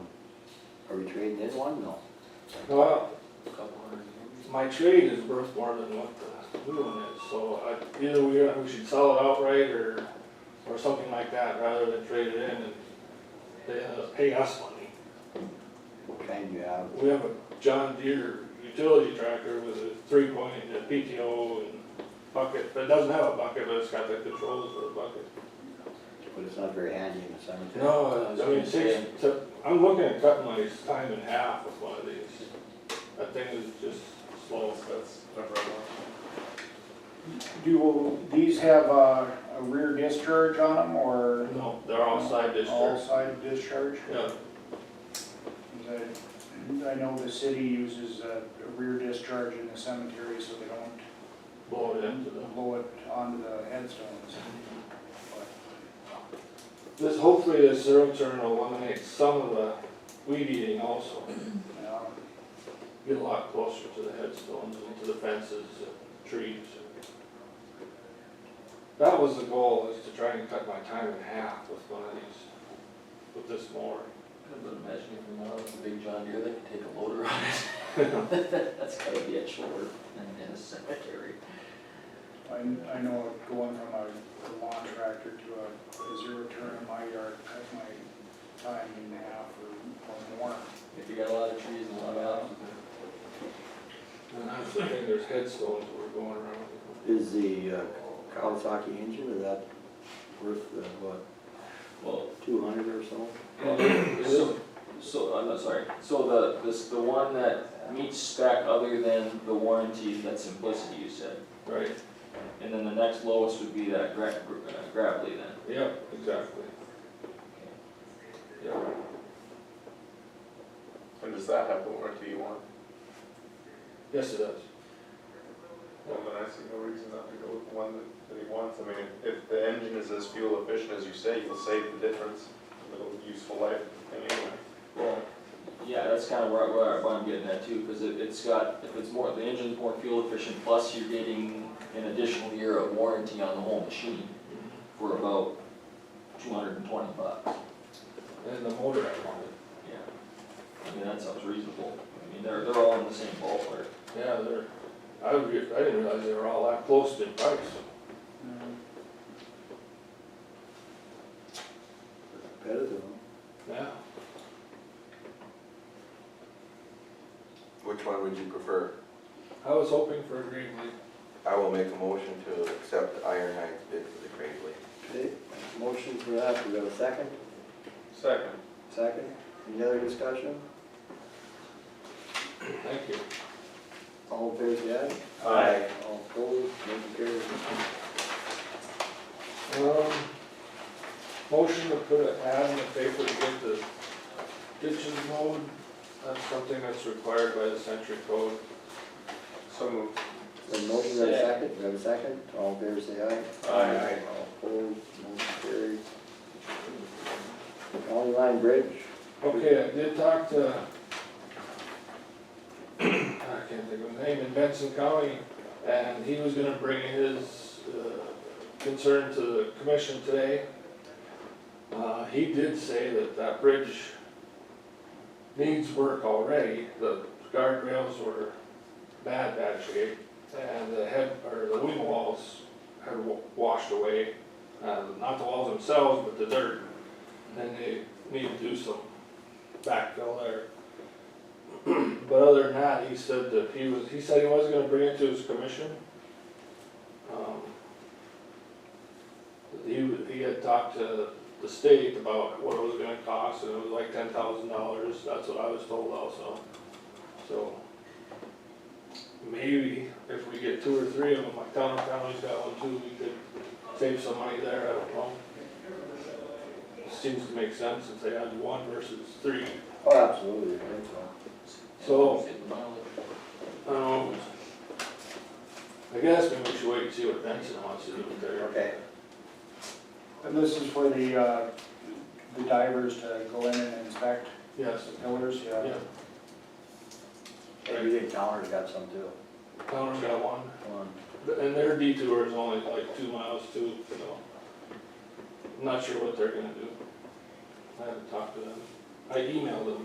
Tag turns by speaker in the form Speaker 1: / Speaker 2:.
Speaker 1: Are we trading in one? No.
Speaker 2: Well,
Speaker 1: Couple hundred years.
Speaker 2: my trade is worth more than what the new one is, so I, either we, we should sell it outright or, or something like that, rather than trade it in and they end up paying us money.
Speaker 1: What kind you have?
Speaker 2: We have a John Deere utility tractor with a three point, a PTO and bucket, but it doesn't have a bucket, but it's got the controls for a bucket.
Speaker 1: But it's not very handy in the cemetery.
Speaker 2: No, I mean, six, so I'm looking at cutting my time in half with one of these. That thing is just slow, that's.
Speaker 3: Do these have a a rear discharge on them or
Speaker 2: No, they're all side
Speaker 3: all
Speaker 2: discharge.
Speaker 3: side discharge?
Speaker 2: Yeah,
Speaker 3: 'Cause I I know the city uses a a rear discharge in the cemetery so they don't
Speaker 2: blow it into them.
Speaker 3: blow it onto the headstones.
Speaker 2: This, hopefully this zero turn will eliminate some of the weed eating also.
Speaker 3: But, um, yeah.
Speaker 2: Get a lot closer to the headstones and to the fences and trees. That was the goal, is to try and cut my time in half with one of these, with this mower.
Speaker 4: But imagine if we now with the big John Deere, they could take a loader on it. That's gotta be a chore in the cemetery.
Speaker 3: I, I know going from a a lawn tractor to a a zero turn in my yard, cut my time in half or- or more.
Speaker 4: If you got a lot of trees and a lot of houses.
Speaker 2: And that's the thing, there's headstones that were going around.
Speaker 1: Is the uh, Kawasaki engine, is that worth, uh, what,
Speaker 4: Well,
Speaker 1: two hundred or so?
Speaker 4: so, so, I'm not sorry, so the, this, the one that meets spec other than the warranty, that's simplicity you said.
Speaker 2: Right,
Speaker 4: And then the next lowest would be that gra- uh, gravelly then.
Speaker 2: yeah, exactly. Yeah.
Speaker 5: And does that have the warranty you want?
Speaker 2: Yes, it does.
Speaker 5: Well, then I see no reason not to go with the one that- that he wants. I mean, if- if the engine is as fuel efficient as you say, you'll save the difference, little useful life thing anyway.
Speaker 4: Well, yeah, that's kind of where, where I'm getting at too, because it, it's got, if it's more, the engine's more fuel efficient, plus you're getting an additional year of warranty on the whole machine for about two hundred and twenty bucks.
Speaker 2: And the motor I wanted.
Speaker 4: Yeah. I mean, that sounds reasonable. I mean, they're, they're all in the same ballpark.
Speaker 2: Yeah, they're, I, re- I didn't realize they were all that close in price.
Speaker 1: Competitive, huh?
Speaker 2: Yeah.
Speaker 6: Which one would you prefer?
Speaker 2: I was hoping for a green light.
Speaker 6: I will make a motion to accept Iron Heights bid for the Gravely.
Speaker 1: Okay, motion for that, we got a second?
Speaker 5: Second.
Speaker 1: Second, any other discussion?
Speaker 2: Thank you.
Speaker 1: All in favor, say
Speaker 5: Aye.
Speaker 1: aye. All opposed, motion carries.
Speaker 2: Um, motion to put an ad in the paper to get the ditches mowed. That's something that's required by the century code.
Speaker 5: So moved.
Speaker 1: The motion, we have a second, we have a second, all in favor, say aye.
Speaker 5: Aye.
Speaker 1: All opposed, motion carries. County line bridge,
Speaker 2: Okay, I did talk to, I can't think of his name, in Benson County, and he was gonna bring his uh, concern to the commission today. Uh, He did say that that bridge needs work already, the guardrails were bad, bad shape, and the head, or the wing walls had wa- washed away, Uh, not the walls themselves, but the dirt, and they need to do some backfill there. But other than that, he said that he was, he said he was gonna bring it to his commission. Um, He, wa- he had talked to the state about what it was gonna cost, and it was like ten thousand dollars, that's what I was told also. So, maybe if we get two or three of them, like Towner County's got one too, we could save some money there, I don't know. Seems to make sense if they had one versus three.
Speaker 1: oh, absolutely, I think so.
Speaker 2: So-
Speaker 4: And mileage.
Speaker 2: Um, I guess maybe we should wait and see what Benson wants to do with their.
Speaker 1: Okay.
Speaker 3: And this is for the, uh, the divers to go in and inspect
Speaker 2: Yes,
Speaker 3: the pillars,
Speaker 2: yeah,
Speaker 3: yeah.
Speaker 1: Hey, you think Towner's got some too?
Speaker 2: Connor's got one,
Speaker 1: Come on.
Speaker 2: and their detour is only like two miles too, so. I'm Not sure what they're gonna do. I haven't talked to them. I emailed them